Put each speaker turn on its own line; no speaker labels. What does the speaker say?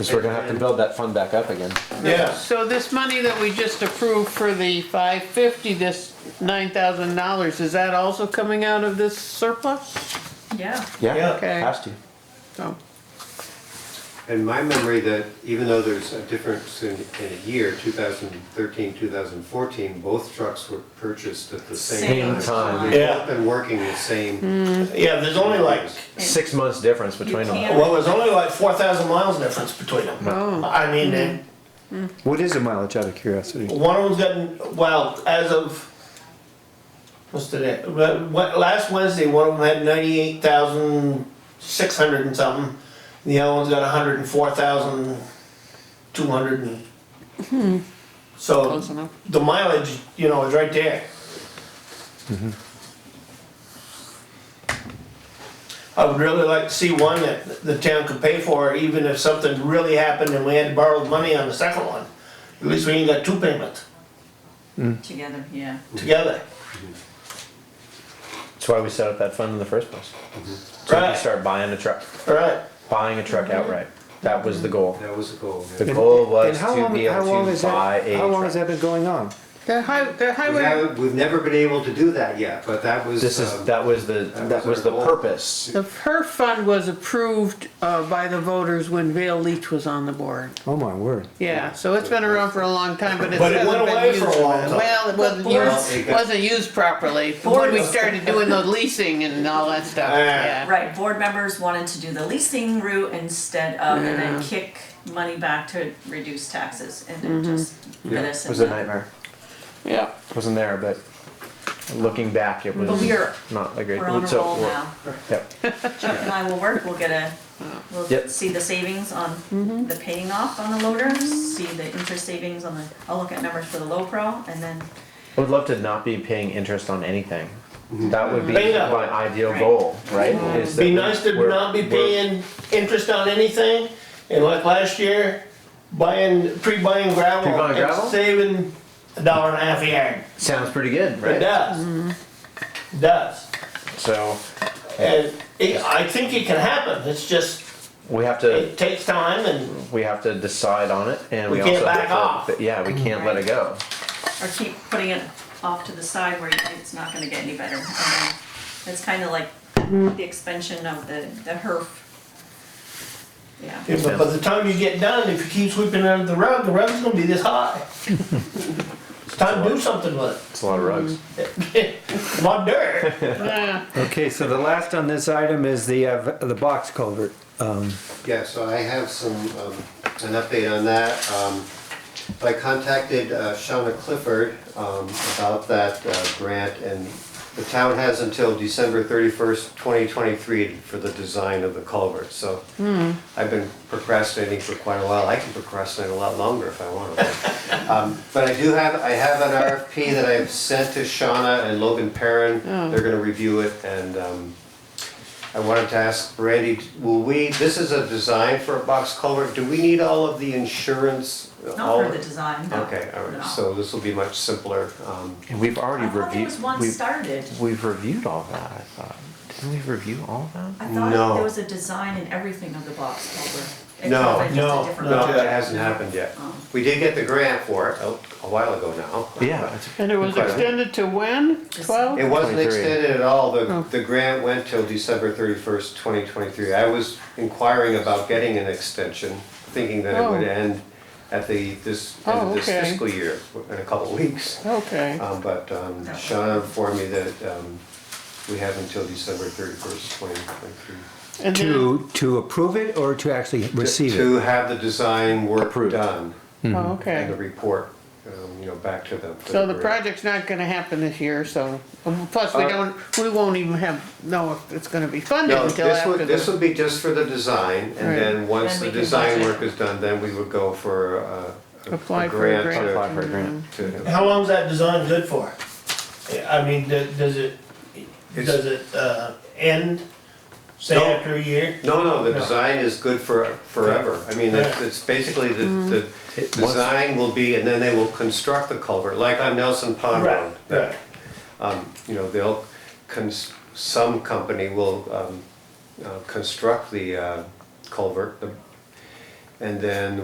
Because we're gonna have to build that fund back up again.
Yeah,
So this money that we just approved for the five fifty, this nine thousand dollars, is that also coming out of this surplus?
Yeah.
Yeah,
Okay.
has to.
So,
And my memory that even though there's a difference in, in a year, 2013, 2014, both trucks were purchased at the same time.
Same time.
They've
Yeah.
both been working the same.
yeah, there's only like,
Six months difference between them.
can't-
well, there's only like four thousand miles difference between them.
Oh.
I mean, it-
What is the mileage out of curiosity?
one of them's got, well, as of, what's today? Well, what- Last Wednesday, one of them had ninety-eight thousand six hundred and something. The other one's got hundred and four thousand two hundred and. So
Hmm. close enough.
the mileage, you know, is right there. I would really like to see one that the town could pay for, even if something really happened and we had to borrow money on the second one. At least we ain't got two payments
Together, yeah.
Mm.
together.
That's why we set up that fund in the first place. So we can
Right,
start buying a truck,
right.
buying a truck
Mm-hmm.
outright. That was the goal.
That was the goal.
The
yeah.
goal
And
was
how
to
long,
be
how long
able
is
to buy
that,
a
how long has
truck.
that been going on?
The high, the
We
highway,
haven't, we've never been able to do that yet, but that was.
This is,
um,
that was the, that was the purpose.
the her fund was approved, uh, by the voters when Vale Leach was on the board.
Oh my word.
Yeah, so it's been around for a long time, but it
But it went
hasn't been
away
used.
for a long time.
Well, it wasn't
boards-
used, wasn't used properly, when we started doing the leasing and all that stuff,
Yeah.
yeah.
Right, board members wanted to do the leasing route instead of, and
Yeah.
then kick money back to reduce taxes and then just for
Yeah,
this
It
and
was a
that.
nightmare.
Yeah.
Wasn't there, but looking back, it was
But we are-
not a great.
We're on a
so
roll
we're-
now.
Yep.
Chuck and I will work, we'll get a, we'll
Yep.
see the savings on the paying off on the loader, see the interest savings on the, I'll look at numbers for the low pro and then,
I would love to not be paying interest on anything. That would be
Bingo.
my ideal
Right.
goal, right? Is that
Be nice to
we're-
not be
we're-
paying interest on anything, and like last year, buying, pre-buying gravel.
Pre-buying
and
gravel?
Saving a dollar and a half a yard.
Sounds pretty good,
It
right?
does. Does.
So
And it, I think it can happen, it's just,
we have to,
it takes time and,
we have to decide on it and
We
we
can't
also
back
have
off.
to, but yeah, we can't let it go.
or keep putting it off to the side where it's not gonna get any better. And then It's kinda like the expansion of the, the HERF. Yeah.
but by the time you get done, if you keep sweeping under the rug, the rug's gonna be this high. It's time to do something with
It's a lot of rugs.
it. A lot of dirt.
Yeah.
Okay, so the last on this item is the, uh, the box culvert. Um,
Yeah, so I have some, um, an update on that. Um, I contacted uh, Shauna Clifford, um, about that, uh, grant and the town has until December thirty-first, twenty twenty-three for the design of the culvert, so. I've been procrastinating for quite a while. I can procrastinate a lot longer if I want to. Um, But I do have, I have an RFP that I've sent to Shauna and Logan Perrin. They're gonna review it and, um, I wanted to ask Randy, will we, this is a design for a box culvert, do we need all of the insurance? all-
Not for the design, no.
Okay, all
No.
right, so this will be much simpler. um,
And we've already
I thought there
reviewed,
was one
we've,
started.
we've reviewed all that, I thought. Didn't we review all that?
I thought
No.
there was a design and everything of the box culvert.
No,
no,
No, that hasn't happened yet.
Oh.
We did get the grant for it a a while ago now.
Yeah, it's-
And it was extended to when? Twelve?
It wasn't
23.
extended at all, the,
Oh.
the grant went till December thirty-first, twenty twenty-three. I was inquiring about getting an extension, thinking that it would
Oh.
end at the, this,
Oh,
end of this
okay. Oh.
fiscal year, in a couple of weeks.
Okay.
Um, but, um, Shauna informed me that, um, we have until December thirty-first, twenty twenty-three.
uh,
And then-
To, to approve it or to actually receive it?
To have the design work
Approved.
done,
Oh,
and the
okay.
report, um, you know, back to them. for
So the
grant.
project's not gonna happen this year, so, um, plus we
Uh,
don't, we won't even have, know if it's gonna be funded
No,
until
this
after
would, this
the.
would be just for the design, and
Right.
then once
Then
the
we can
design
budget.
work is done, then we would go for uh, a.
Apply for a grant.
to-
apply for a grant.
to-
How long's that design good for? I mean, do- does it, does it, uh, end, say
No.
after a year?
No, no, the
No.
design is good for, forever. I mean, it's
Yeah.
it's basically the, the
It was-
design will be, and then they will construct the culvert, like on Nelson Pond Road.
Right.
Um, You know, they'll, cons- some company will um, uh, construct the uh, culvert, the- And then